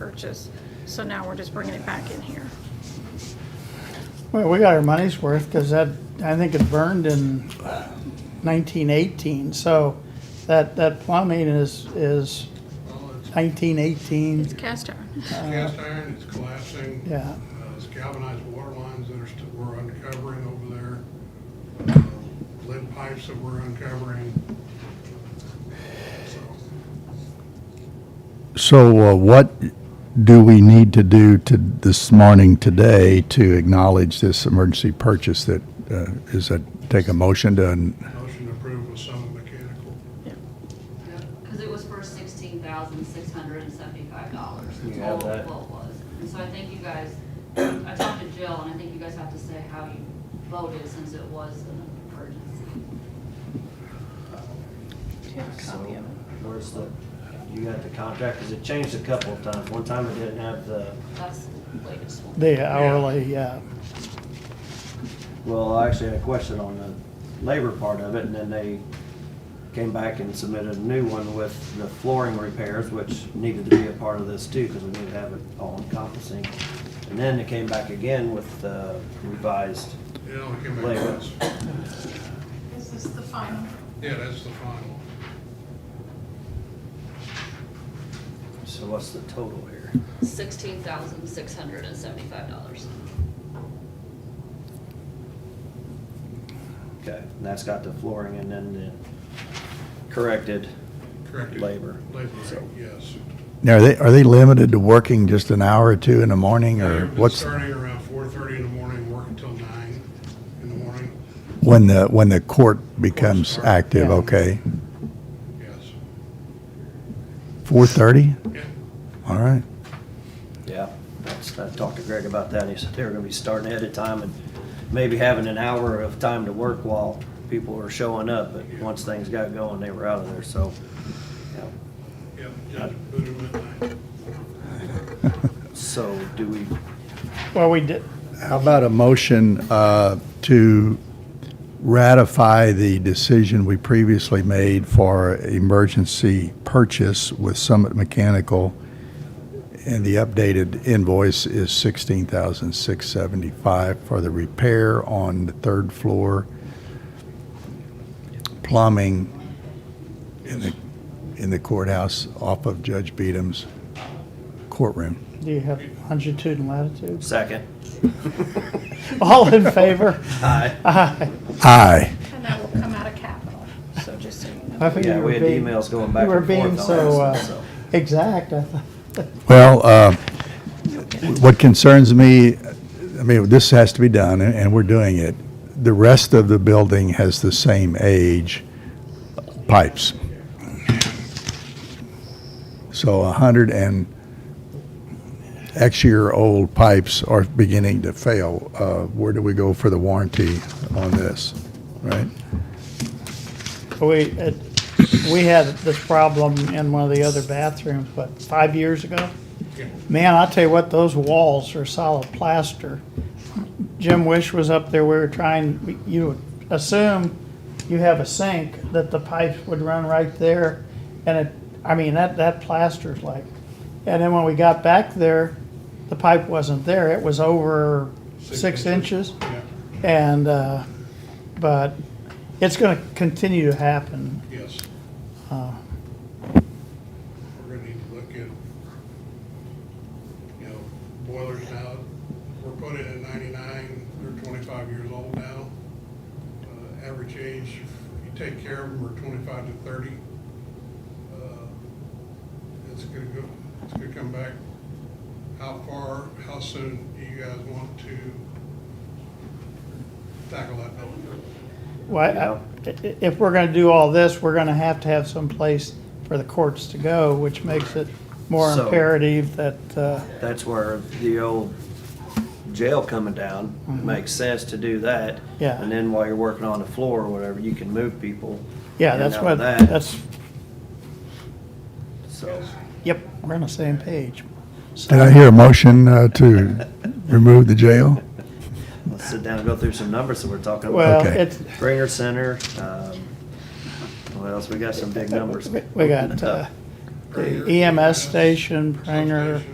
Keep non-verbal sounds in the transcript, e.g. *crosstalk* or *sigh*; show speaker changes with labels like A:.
A: purchase. So now we're just bringing it back in here.
B: Well, we got our money's worth because that, I think it burned in nineteen eighteen, so that, that plumbing is, is
C: Well, it's
B: nineteen eighteen,
A: It's cast iron.
C: cast iron, it's collapsing.
B: yeah.
C: Uh, It's galvanized water lines that are, st- we're uncovering over there. Uh, Lead pipes that we're uncovering. So,
D: So uh, what do we need to do to, this morning, today, to acknowledge this emergency purchase that, uh, is that, take a motion to, an-
C: Motion approved with some mechanical.
E: Because it was for sixteen thousand six hundred and seventy-five dollars, the
F: You have
E: total
F: that?
E: quote was. And so I think you guys, I talked to Jill, and I think you guys have to say how you voted since it was an emergency.
A: copy of it?
F: Where's the, you got the contract, because it changed a couple of times. One time it didn't have the,
E: That's the latest one.
B: The hourly, yeah,
F: well, I actually had a question on the labor part of it, and then they came back and submitted a new one with the flooring repairs, which needed to be a part of this too, because we need to have it all encompassing. And then it came back again with the revised,
C: It only came back
F: Later.
C: once.
A: This is the final.
C: Yeah, that's the final.
F: so what's the total here?
E: Sixteen thousand six hundred and seventy-five dollars.
F: Okay, and that's got the flooring and then the corrected
C: Corrected.
F: Labor.
C: Labor,
F: So-
C: yes.
D: now, are they, are they limited to working just an hour or two in the morning, or
C: They've been
D: what's,
C: Starting around four thirty in the morning, working till nine in the morning,
D: when the, when the court becomes
C: Court starts.
D: active,
B: Yeah.
D: okay?
C: yes.
D: Four-thirty?
C: Yeah,
D: All right.
F: Yeah, that's, I talked to Greg about that, and he said they were gonna be starting ahead of time and maybe having an hour of time to work while people were showing up, but once things got going, they were out of there, so. yeah.
C: yeah, Judge Boone midnight.
F: So do we,
B: well, we did,
D: How about a motion uh, to ratify the decision we previously made for emergency purchase with Summit Mechanical? And the updated invoice is $16,675 for the repair on the third floor plumbing in the in the courthouse off of Judge Beadham's courtroom.
B: do you have longitude and
F: *laughs*
B: latitude?
F: second?
B: All in favor?
F: Aye.
B: Aye.
D: Aye.
A: And that will come out of capital, so just so you know.
B: I think you
F: Yeah,
B: were
F: we had
B: being-
F: emails going back
B: you were
F: and forth
B: being
F: on this
B: so, uh,
F: one, so.
B: Exact, I thought.
D: Well, uh, what concerns me, I mean, this has to be done, and- and we're doing it. The rest of the building has the same age pipes. So a hundred and X-year-old pipes are beginning to fail. Uh, Where do we go for the warranty on this, right?
B: We, it, we had this problem in one of the other bathrooms, but five years ago?
C: Yeah.
B: Man, I'll tell you what, those walls are solid plaster. Jim Wish was up there, we were trying, we- you would assume you have a sink, that the pipes would run right there. And it, I mean, that, that plaster's like, and then when we got back there, the pipe wasn't there, it was over six inches.
C: Yeah,
B: And, uh, but it's gonna continue to happen.
C: yes.
B: Uh,
C: We're gonna need to look at, you know, boilers now, were put in in ninety-nine, they're twenty-five years old now. Uh, Average age, if you take care of them, are twenty-five to thirty. Uh, It's gonna go, it's gonna come back. How far, how soon do you guys want to tackle that building?
B: Well, I- i- if we're gonna do all this, we're gonna have to have some place for the courts to go, which makes it more
F: So-
B: imperative that, uh,
F: That's where the old jail coming down, makes sense to do that.
B: Mm-hmm. Yeah.
F: And then while you're working on the floor or whatever, you can move people.
B: yeah,
F: in
B: that's
F: out
B: what,
F: of that,
B: that's,
F: So,
B: yep, we're on the same page.
D: Did I hear a motion uh, to remove the jail?
F: let's sit down and go through some numbers that we're talking about.
B: Well,
D: Okay.
B: it's,
F: Springer Center, um, what else? We got uh, some big numbers.
B: we got, uh, the EMS E station, Pranger.